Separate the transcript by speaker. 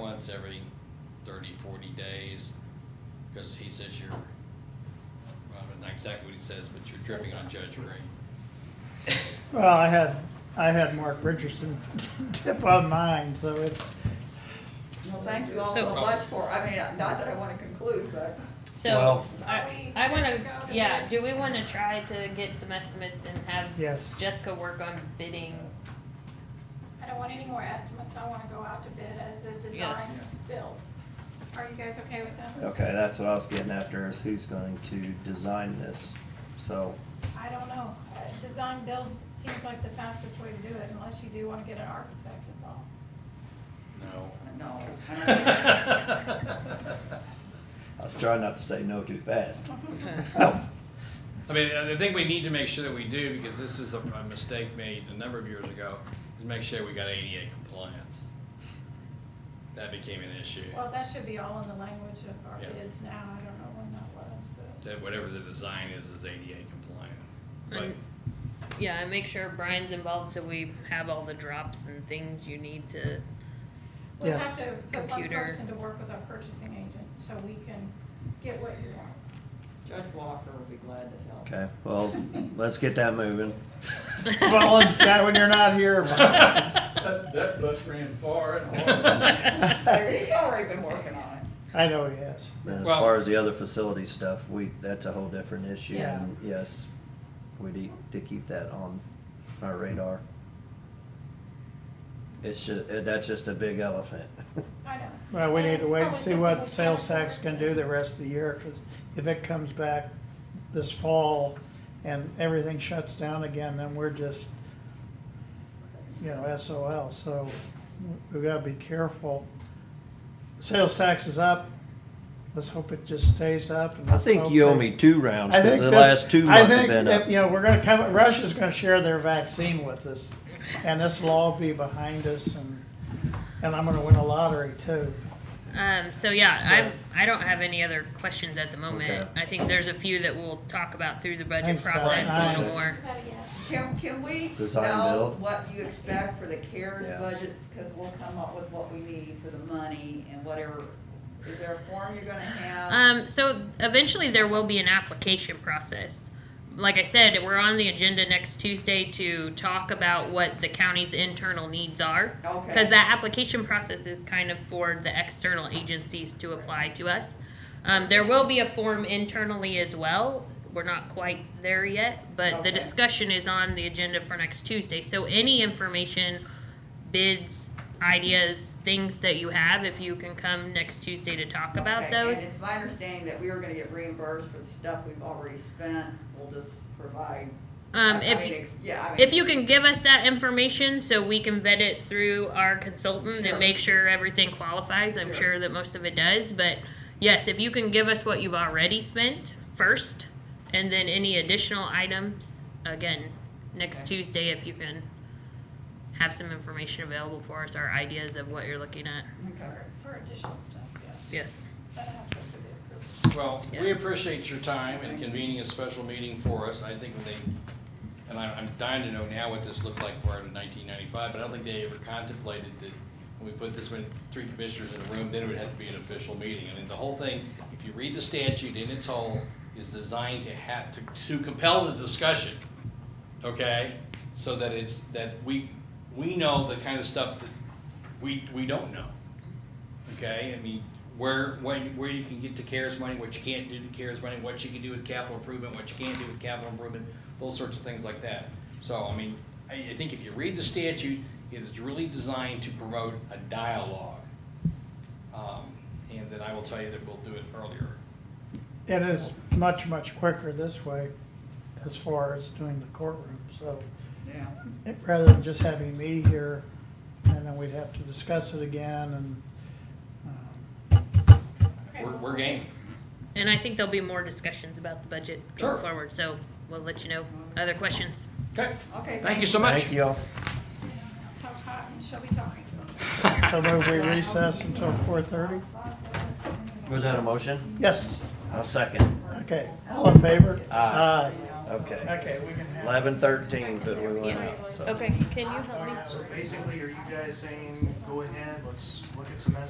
Speaker 1: once every 30, 40 days, because he says you're, well, not exactly what he says, but you're dripping on Judge Green.
Speaker 2: Well, I had, I had Mark Richardson tip on mine, so it's,
Speaker 3: Well, thank you all so
Speaker 1: So-
Speaker 3: much for, I mean, not that I want to conclude, but
Speaker 4: So,
Speaker 5: Well-
Speaker 4: I, I wanna, yeah, do we wanna try to get some estimates and have
Speaker 2: yes.
Speaker 4: Jessica work on bidding?
Speaker 6: I don't want any more estimates, I wanna go out to bid as a
Speaker 4: Yes.
Speaker 6: design build. Are you guys okay with that?
Speaker 5: Okay, that's what I was getting after, is who's going to design this, so.
Speaker 6: I don't know, Uh, design build seems like the fastest way to do it, unless you do wanna get an architect involved.
Speaker 1: No.
Speaker 3: no.
Speaker 5: I was trying not to say no too fast.
Speaker 1: I mean, I think we need to make sure that we do, because this is a a mistake made a number of years ago, is make sure we got ADA compliance. That became an issue,
Speaker 6: Well, that should be all in the language of our
Speaker 1: Yeah.
Speaker 6: bids now, I don't know when that was, but.
Speaker 1: that whatever the design is, is ADA compliant. But
Speaker 4: And- Yeah, and make sure Brian's involved so we have all the drops and things you need to,
Speaker 6: We'll
Speaker 2: Yes.
Speaker 6: have to put one
Speaker 4: Computer.
Speaker 6: person to work with our purchasing agent, so we can get what you want.
Speaker 3: Judge Walker will be glad to help.
Speaker 5: Okay, well, let's get that moving.
Speaker 2: Well, and that when you're not here, Mike.
Speaker 7: That, that bus ran far and hard.
Speaker 3: There- He's already been working on
Speaker 2: I know he is.
Speaker 5: And as
Speaker 1: Well-
Speaker 5: far as the other facility stuff, we, that's a whole different issue.
Speaker 2: Yeah.
Speaker 5: and Yes, we need to keep that on our radar. It's ju, uh, that's just a big elephant.
Speaker 6: I know.
Speaker 2: Well, we
Speaker 6: And
Speaker 2: need to
Speaker 6: it's
Speaker 2: wait and
Speaker 6: probably
Speaker 2: see
Speaker 6: something we
Speaker 2: what sales
Speaker 6: can't
Speaker 2: tax
Speaker 6: afford.
Speaker 2: can do the rest of the year, because if it comes back this fall and everything shuts down again, then we're just, you know, SOL, so we gotta be careful. Sales tax is up, let's hope it just stays up. and
Speaker 5: I
Speaker 2: let's
Speaker 5: think
Speaker 2: hope
Speaker 5: you owe
Speaker 2: they-
Speaker 5: me two rounds,
Speaker 2: I
Speaker 5: cause
Speaker 2: think
Speaker 5: the
Speaker 2: this-
Speaker 5: last
Speaker 2: I
Speaker 5: two months have
Speaker 2: think
Speaker 5: been
Speaker 2: that,
Speaker 5: up.
Speaker 2: You know, we're gonna come, Russia's gonna share their vaccine with us, and this will all be behind us, and, and I'm gonna win a lottery too.
Speaker 4: um, so yeah, I'm, I don't have any other questions at the moment.
Speaker 5: Okay.
Speaker 4: I think there's a few that we'll talk about through the budget
Speaker 2: Thanks, Brian.
Speaker 4: process a little
Speaker 5: Alright.
Speaker 4: more.
Speaker 6: Is that a yes?
Speaker 3: it. Can, can we
Speaker 5: Design
Speaker 3: know
Speaker 5: build?
Speaker 3: what you expect for the CARES
Speaker 5: Yeah.
Speaker 3: budgets? Because we'll come up with what we need for the money and whatever, is there a form you're gonna have?
Speaker 4: Um, so eventually there will be an application process. Like I said, we're on the agenda next Tuesday to talk about what the county's internal needs are. Because
Speaker 3: Okay,
Speaker 4: that application process is kind of for the external agencies to apply to us. Um, there will be a form internally as well. We're not quite there yet, but the
Speaker 3: Okay.
Speaker 4: discussion is on the agenda for next Tuesday. So any information, bids, ideas, things that you have, if you can come next Tuesday to talk about
Speaker 3: Okay, and
Speaker 4: those.
Speaker 3: it's my understanding that we are gonna get reimbursed for the stuff we've already spent, we'll just provide.
Speaker 4: Um,
Speaker 3: I- I
Speaker 4: if
Speaker 3: mean, ex- Yeah, I mean.
Speaker 4: If you can give us that information so we can vet it through our consultant
Speaker 3: Sure.
Speaker 4: and make sure everything qualifies, I'm
Speaker 3: Sure.
Speaker 4: sure that most of it does, but yes, if you can give us what you've already spent first, and then any additional items, again, next
Speaker 3: Okay.
Speaker 4: Tuesday, if you can have some information available for us, or ideas of what you're looking at,
Speaker 3: Okay.
Speaker 6: For- For additional stuff, yes.
Speaker 4: yes.
Speaker 6: That happens to be approved.
Speaker 1: Well, we
Speaker 4: Yes.
Speaker 1: appreciate your time and convening a special meeting for us. I think they, and I- I'm dying to know now what this looked like prior to 1995, but I don't think they ever contemplated that when we put this many, three commissioners in a room, then it would have to be an official meeting. I mean, the whole thing, if you read the statute in its whole, is designed to have, to to compel the discussion, okay? So that it's, that we, we know the kind of stuff that we, we don't know. Okay, I mean, where, when, where you can get to CARES money, what you can't do to CARES money, what you can do with capital improvement, what you can't do with capital improvement, those sorts of things like that. So, I mean, I, I think if you read the statute, it is really designed to promote a dialogue. Um, and then I will tell you that we'll do it earlier.
Speaker 2: It is much, much quicker this way as far as doing the courtroom, so
Speaker 3: Yeah,
Speaker 2: it- rather than just having me here and then we'd have to discuss it again and, um,
Speaker 6: Okay,
Speaker 1: We're,
Speaker 6: well,
Speaker 1: we're game.
Speaker 4: And I think there'll be more discussions about the budget
Speaker 1: Sure.
Speaker 4: going forward, so we'll let you know. Other questions?
Speaker 1: Okay,
Speaker 3: okay.
Speaker 1: thank you so much.
Speaker 5: Thank y'all.
Speaker 6: Tell Cotton, she'll be talking to him.
Speaker 2: so move we recess until four thirty?
Speaker 5: Was that a motion?
Speaker 2: Yes,
Speaker 5: A second.
Speaker 2: okay, all in favor?
Speaker 5: Aye.
Speaker 2: Aye.
Speaker 5: Okay.
Speaker 2: Okay, we can have.
Speaker 5: Eleven thirteen, but we went up, so.
Speaker 4: Okay, can you help me?
Speaker 8: So basically, are you guys saying, go ahead, let's look at some estimates